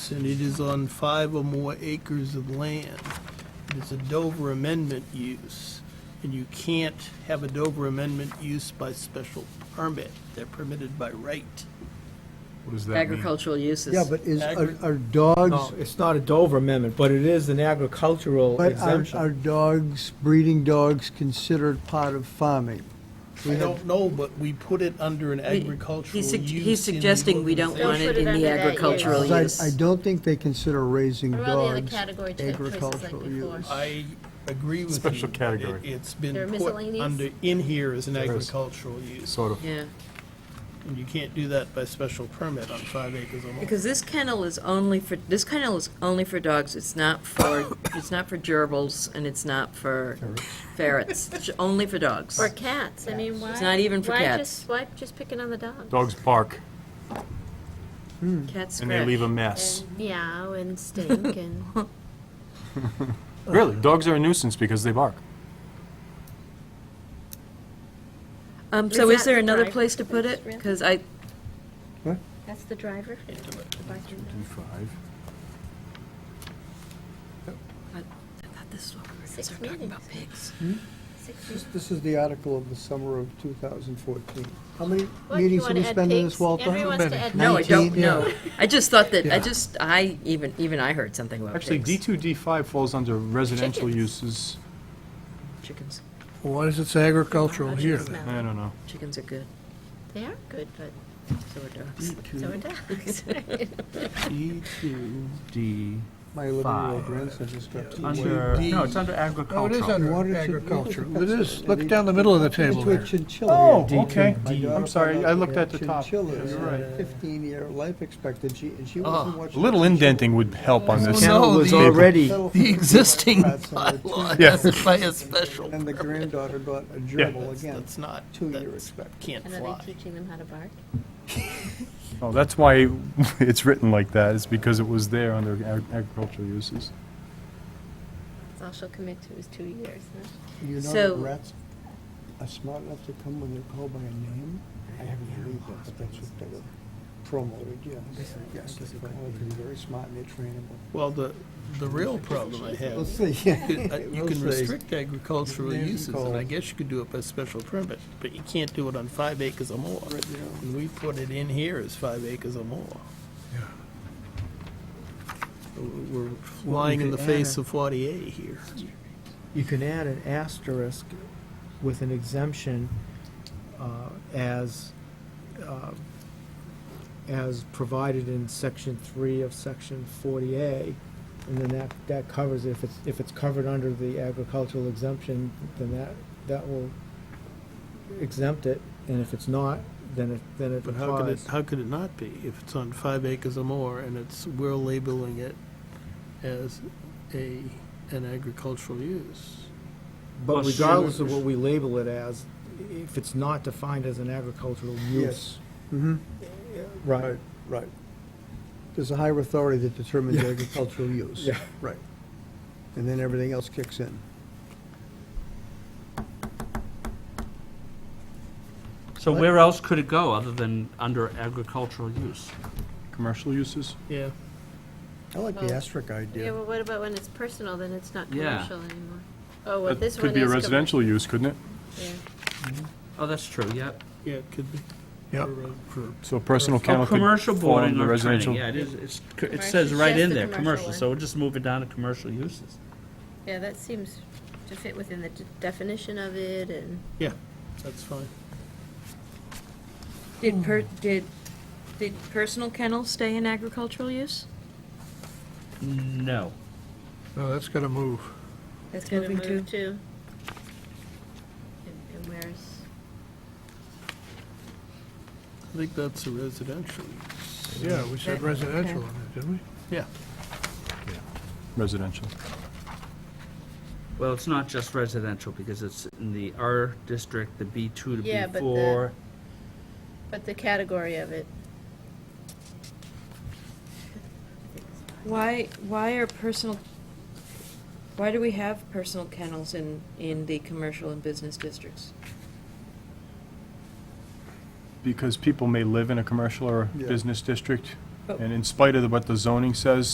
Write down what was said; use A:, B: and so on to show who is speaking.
A: and it is on five or more acres of land. It's a Dover amendment use, and you can't have a Dover amendment use by special permit. They're permitted by right.
B: What does that mean?
C: agricultural uses.
D: Yeah, but is, are
A: Agri-
D: are
E: No,
D: dogs,
E: it's not a Dover amendment, but it is an agricultural
D: but are, are
E: exemption.
D: dogs, breeding dogs considered part of farming?
A: I don't know, but we put it under an agricultural use.
C: He's sug-
A: in the
C: he's suggesting we don't want
A: organization.
C: it
F: Don't put it
C: in
F: under
C: the
F: that, yeah.
C: agricultural
D: 'Cause I-
C: use.
D: I don't think they consider raising
F: Or all the other
D: dogs
F: category cho- choices like
D: agricultural
F: before.
D: use.
A: I agree with you.
B: Special
A: that
B: category.
A: it- It's
F: There are
A: been put
F: miscellaneous?
A: under, in here as an
B: There is.
A: agricultural use,
B: Sort of.
C: Yeah,
A: and you can't do that by special permit on five acres or more.
C: because this kennel is only for, this kennel is only for dogs, it's not for, it's not for gerbils, and it's not for ferrets, it's only for dogs.
F: Or cats, I mean, why?
C: It's not even for
F: why
C: cats.
F: just- Why just picking on the dogs?
B: Dogs bark
C: Cats
B: and they
C: scratch.
B: leave a mess.
F: And meow and stink and,
B: Really, dogs are a nuisance because they bark.
C: Um,
F: Is
C: so is
F: that
C: there
F: the
C: another
F: drive?
C: place to put it? Because I,
F: that's the driver? The barking dog.
C: I thought this is what we were gonna
F: Six
C: start talking
F: meetings.
C: about pigs.
F: Six
D: This-
F: years.
D: This is the article of the summer of 2014. How many
F: What, you
D: meetings have
F: wanna
D: we
F: add
D: spent in
F: pigs?
D: this, Walter?
F: Everyone wants to add
C: No, I
F: pigs.
C: don't,
D: 19,
C: no.
D: yeah.
C: I just thought that, I
D: Yeah.
C: just, I, even, even I heard something about pigs.
B: Actually, D2, D5 falls under residential
F: Chickens.
B: uses.
C: Chickens,
G: Why does it say agricultural here then?
F: Smell.
B: I don't know.
C: chickens are good,
F: They are good, but
C: so are dogs.
F: so are dogs.
B: D2, D.
D: My 11-year-old
B: Five.
D: grandson just got two.
B: Under,
D: white-
B: no, it's under
G: Oh, it is
B: agricultural.
D: Water
G: under
D: should-
G: agricultural. It is, look down the middle of the table
D: It's a
G: there.
D: chinchilla.
B: Oh,
E: D2,
B: okay.
D: My daughter
B: I'm
D: found out
B: sorry, I
D: they
B: looked
D: had
B: at the top. Yeah,
D: Chinchillas,
B: You're right.
D: fifteen-year life expectancy, and she
A: Ah,
D: wasn't
B: A
D: watching.
B: little indenting would help on
E: The
B: this.
A: No,
E: kennel was
A: the-
E: already,
D: Settle for
A: The existing
D: rats on her
A: bylaw
B: Yeah.
A: doesn't by a special
D: And the
A: permit.
D: granddaughter got a gerbil
A: That's,
D: again,
A: that's not,
D: two-year
A: that's,
D: expectancy.
A: can't
F: And are they
A: fly.
F: teaching them how to bark?
B: Oh, that's why it's written like that, is because it was there under ag- agricultural uses.
F: That's all she'll commit to is two years, huh?
D: You know
C: So-
D: that rats are smart enough to come when they're called by a name? I haven't believed that, but that's what they were promoted, yes. Yes, they're promoted to be very smart and they're trainable.
A: Well, the, the real problem I
D: We'll
A: have,
D: see.
A: you could- uh, you
D: We'll
A: can
D: see.
A: restrict agricultural
D: There's
A: uses, and I
D: calls.
A: guess you could do it by special permit, but you can't do it on five acres or more.
D: Right now.
A: And we put it in here as five acres or more. W- We're flying in the
E: could add
A: face
E: a-
A: of 40A here.
E: you can add an asterisk with an exemption uh, as, uh, as provided in section three of section 40A, and then that, that covers, it. if it's, if it's covered under the agricultural exemption, then that, that will exempt it, and if it's not, then it, then it
A: But how could it,
E: applies.
A: how could it not be if it's on five acres or more and it's, we're labeling it as a, an agricultural use?
E: But
B: Well, sure.
E: regardless of what we label it as, if it's not defined as an agricultural use.
D: Yes.
A: Mm-hmm.
D: Mhm.
E: Right.
D: Right. There's a higher authority that determines
E: Yeah.
D: agricultural use.
E: Yeah.
D: Right. And then everything else kicks in.
H: So where else could it go other than under agricultural use?
B: Commercial uses?
A: Yeah.
D: I like the
F: Well,
D: asterisk
F: Yeah,
D: idea.
F: but what about when it's personal, then it's not
H: Yeah.
F: commercial anymore? Oh, well,
B: That
F: this one is.
B: could be a
F: com-
B: residential use, couldn't it?
F: yeah.
H: Oh, that's true, yep.
A: Yeah, it could be.
G: Yep.
A: For, uh, For
B: So personal
H: Oh,
B: kennel could
H: commercial
B: fall
H: boarding
B: under
H: or
B: residential.
H: training, yeah, it is, it's, c- it
F: Commercial,
H: says right
F: just
H: in
F: the
H: there,
F: commercial
H: commercial,
F: one.
H: so we'll just move it down to commercial uses.
F: Yeah, that seems to fit within the d- definition of it and.
A: Yeah, that's fine.
C: Did per, did, did personal kennels stay in agricultural use?
H: No.
G: No, that's gotta move.
C: That's
F: gonna
C: moving to,
F: move to. And and where's,
A: I think that's a residential.
G: Yeah, we said residential on it, didn't we?
A: Yeah.
B: Residential.
H: Well, it's not just residential, because it's in the R district, the B two to B
F: Yeah, but the-
H: four.
F: but the category of it.
C: why, why are personal, why do we have personal kennels in, in the commercial and business districts?
B: Because people may live in a commercial or
D: Yeah.
B: business district And in spite of what the zoning says,